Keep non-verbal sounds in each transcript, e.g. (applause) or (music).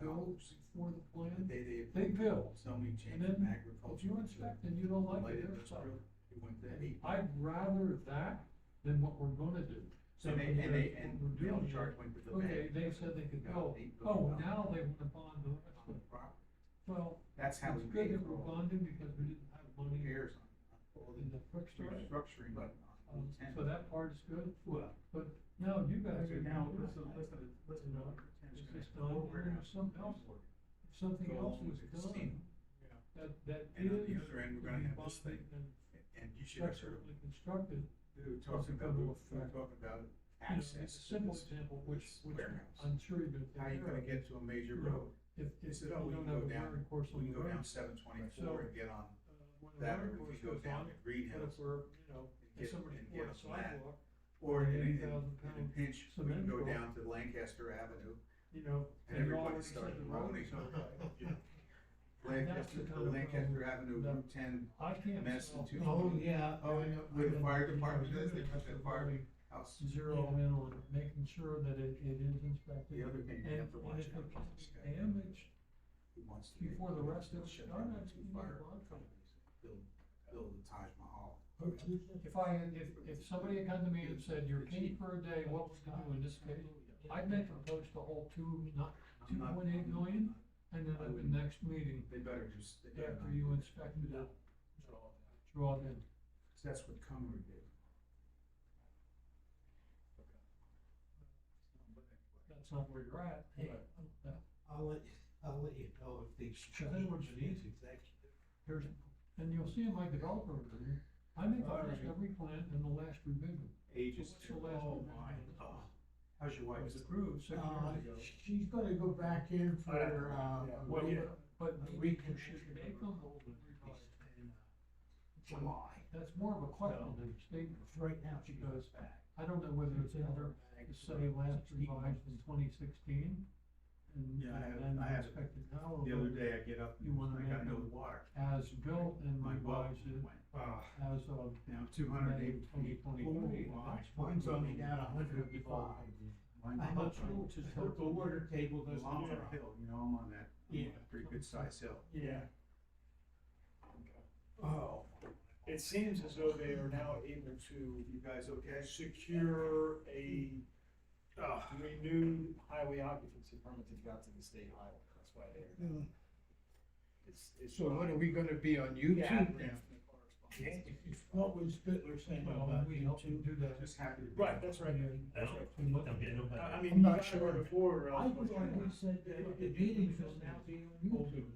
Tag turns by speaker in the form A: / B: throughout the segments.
A: build for the
B: The
A: plan,
B: day they approved
A: they build.
B: zoning change
A: And
B: from
A: then If you
B: agriculture
A: inspect and you don't
B: to
A: like
B: light
A: it, that's
B: industrial,
A: fine.
B: it went to eight.
A: I'd rather that than what we're gonna do.
B: And they, and they, and
A: We're
B: Bill
A: doing
B: Sharp went to the bank.
A: Okay, they said they could
B: Got
A: go,
B: eight
A: oh,
B: billion dollars
A: now they want to bond the rest
B: on
A: of
B: the
A: it.
B: property.
A: Well,
B: That's
A: it's
B: how we
A: good
B: paid
A: that
B: for
A: we're
B: all
A: bonding because we didn't have
B: the
A: money
B: repairs on, on all
A: in the quick
B: the
A: start.
B: restructuring, but on
A: Um,
B: the tenant.
A: So that part is good,
C: Well,
A: but now you guys are
C: okay, now,
A: now,
C: listen, listen, listen,
A: No.
C: to-
B: Tenant's
A: it's
B: gonna
A: just
B: have to
A: done,
B: go
A: and
B: around
A: there's something else,
B: and
A: if something
B: go
A: else was
B: along with the
A: done,
B: casino.
A: that, that is.
B: And on the other end, we're
A: to
B: gonna
A: be
B: have this thing,
A: bonded and
B: and you should have heard
A: Structurally constructed,
B: Who talks
A: Go
B: about, who
A: to
B: who
A: effect.
B: talk about
A: you know,
B: access
A: it's a
B: to
A: simple
B: this
A: example, which,
B: this
A: which
B: warehouse.
A: I'm sure you've been.
B: How you gonna get to a major road?
A: If,
B: They
A: if
B: said,
A: you
B: oh, we
A: don't
B: can
A: have
B: go
A: a
B: down-
A: wearing course
B: We
A: on
B: can
A: the
B: go down
A: road.
B: seven
A: So-
B: twenty-four and get
A: uh,
B: on
A: when a
B: that,
A: wearing
B: or if
A: course
B: you go
A: goes
B: down
A: on,
B: to
A: What
B: Greenhouse
A: if we're, you know, if
B: and get,
A: somebody
B: and
A: poured a
B: get on that.
A: sidewalk,
B: Or
A: an
B: in, in,
A: 80,000
B: in a
A: pound
B: pinch, we can
A: cement
B: go
A: truck.
B: down to Lancaster Avenue
A: you know, and you
B: and everybody
A: already said
B: starts
A: the road
B: groaning.
A: is okay. That's the
B: Lancaster,
A: kind of
B: Lancaster Avenue,
A: that-
B: Route ten,
A: I
B: (laughs)
A: can't
B: Madison
A: solve
B: two.
D: Oh, yeah.
B: Oh,
D: I know.
B: where the fire
D: I know.
B: department is, they put their fire
A: Really
B: house.
A: zero in on making sure that it, it is inspected.
B: The other thing you
A: And-
B: have to
A: and
B: watch
A: if
B: out
A: it
B: for
A: can
B: is this
A: be
B: guy
A: Damaged
B: who wants to.
A: before the rest of it,
B: shut
A: I'm
B: down
A: not
B: two
A: even
B: fire
A: bothered.
B: companies, build, build the Taj Mahal.
A: If I, if, if somebody had come to me and said, you're king for a day, what would you do in this case? I'd make a post to hold two, not,
B: I'm not-
A: 2.8
B: I'm
A: million?
B: not-
A: and then at the next meeting,
B: They better just, they better
A: after
B: not
A: you
B: do that.
A: inspected it, draw it in.
B: So That's what Cumber did.
A: That's not where you're at.
D: Hey, I'll let, I'll let you know if these.
A: Sure, then we're just easy. Here's, and you'll see in my developer review, I make
B: All
A: almost
B: right.
A: every plan in the last revision. What's
B: Ages
A: the
B: too.
A: last
B: Oh,
A: one?
B: my. Oh. How's your wife?
A: It was approved six
D: Uh,
A: years ago.
D: she's gonna go back in for,
B: Yeah.
D: uh,
A: Well,
B: yeah.
A: But
D: Uh,
A: we
D: we
A: can
D: can-
A: should make them old and revised.
D: in, uh, July.
A: That's more of a question than a statement.
D: Right now, she goes back.
A: I don't know whether it's in there, to say last revised in twenty sixteen. And
B: Yeah, I have-
A: then
B: I have it.
A: inspected now. or
B: The other day I get up
A: You wanna
B: and I got
A: make
B: no
A: them-
B: water.
A: As built and
B: My well
A: revised it
B: went, uh,
A: as of
B: now two hundred
A: May
B: eighty
A: twenty
B: feet.
A: twenty-three.
D: Oh, my. Mine's only down a hundred and five.
B: Mine's
D: I'm
B: up
D: not sure
B: on-
D: which is what the water table does.
B: Long for a hill, you know, I'm on that, I'm on
C: Yeah.
B: a pretty good sized hill.
C: yeah,
D: Oh.
C: it seems as though they are now able to
B: You guys okay?
C: secure a uh, renewed highway occupancy permit that got to the state highway, that's why they're. it's- it's
D: So what
C: fine.
D: are we gonna be on
C: Yeah,
D: YouTube
C: that's
D: now?
C: the correspondence.
D: What was Bitler saying
A: Well,
D: about
A: uh, we helped you
D: YouTube?
A: do that.
B: Just happy to be.
C: Right, that's right, that's right. I- I mean, you
D: I'm not
C: got
D: sure.
C: it before,
D: I
C: uh,
D: thought we said that the meetings will now be on YouTube.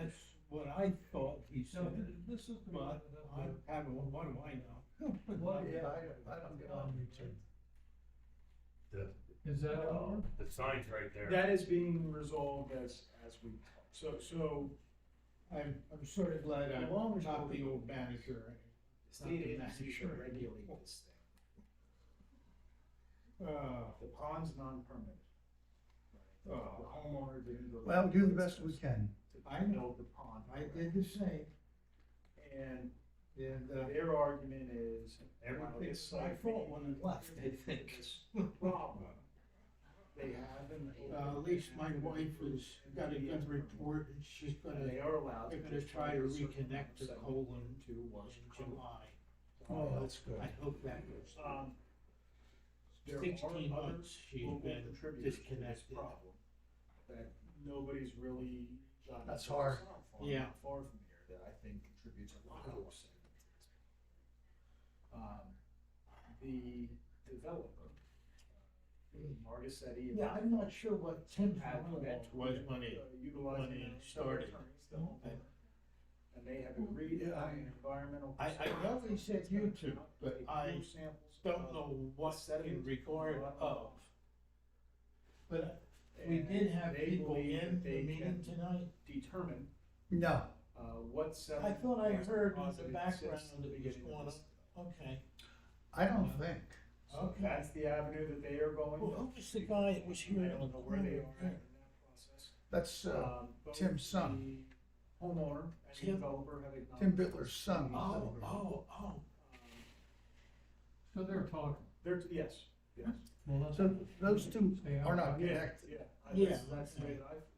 D: That's what I thought he
A: So
D: said,
A: this is the one
D: but I haven't, what do I know? (laughs)
A: What?
D: Yeah, I
A: don't, I don't
D: get on
E: The,
A: Is that
B: Uh,
A: over?
E: the sign's right there.
C: that is being resolved as, as we, talk. so, so
D: I'm, I'm sort of glad I'm not the old manager.
C: the state agency should regulate this thing.
D: Uh,
C: The pond's non-permitted. Uh, The
D: Oh.
C: homeowner didn't. go-
F: Well, do the best we can.
C: To build the pond.
D: I did the same,
C: And
D: and, uh,
C: their argument is. well,
D: everything,
C: it's
D: I
C: like
D: thought when I left, I think. (laughs)
C: the Problem. They have an.
D: Uh, at least my wife has got a good report, and she's gonna,
C: They are allowed.
D: they're gonna try to reconnect the
C: the
D: colon
C: To was.
D: in July.
F: Oh, that's good.
D: I hope that goes.
C: Um. there are
D: Sixteen
C: other
D: months she's
C: local
D: been
C: contributors to this
D: disconnected.
C: Problem that nobody's really. gotten
F: That's
C: to
F: hard.
C: solve far-
D: Yeah.
C: Far from here, that I think contributes a lot of upset. Um, the developer,
F: Hmm.
C: Margisetti. and-
D: Yeah, I'm not sure what Tim's
C: Had
D: comment was when he,
C: uh, Utilizing.
D: when he
C: their
D: started.
C: attorneys, the homeowner. And they have agreed
D: Yeah,
C: on
D: I-
C: environmental.
D: I, I know they said YouTube, but I don't know what in regard of. But we did have people in the meeting tonight.
C: Determine,
F: No,
C: uh, what
D: I
C: sediment.
D: thought I
C: was
D: heard in the
C: deposited
D: background
C: since the
D: that was
C: beginning of
D: going on.
C: this.
D: Okay.
F: I don't think.
C: So that's the avenue that they are going.
D: Well, who was the guy that was here?
C: I don't know where they are in that process.
F: That's uh,
C: Um, both
F: Tim's son.
C: the Homeowner and the
D: Tim-
C: developer have acknowledged.
F: Tim Bitler's son. was
D: Oh,
F: over.
D: oh, oh.
C: Um,
A: So they're talking.
C: There's, yes, yes.
A: Well, that's-
F: So those two
A: Stay out.
F: are not
C: Yeah,
F: connected.
C: Yeah, I-
D: Yeah.
C: That's the way that I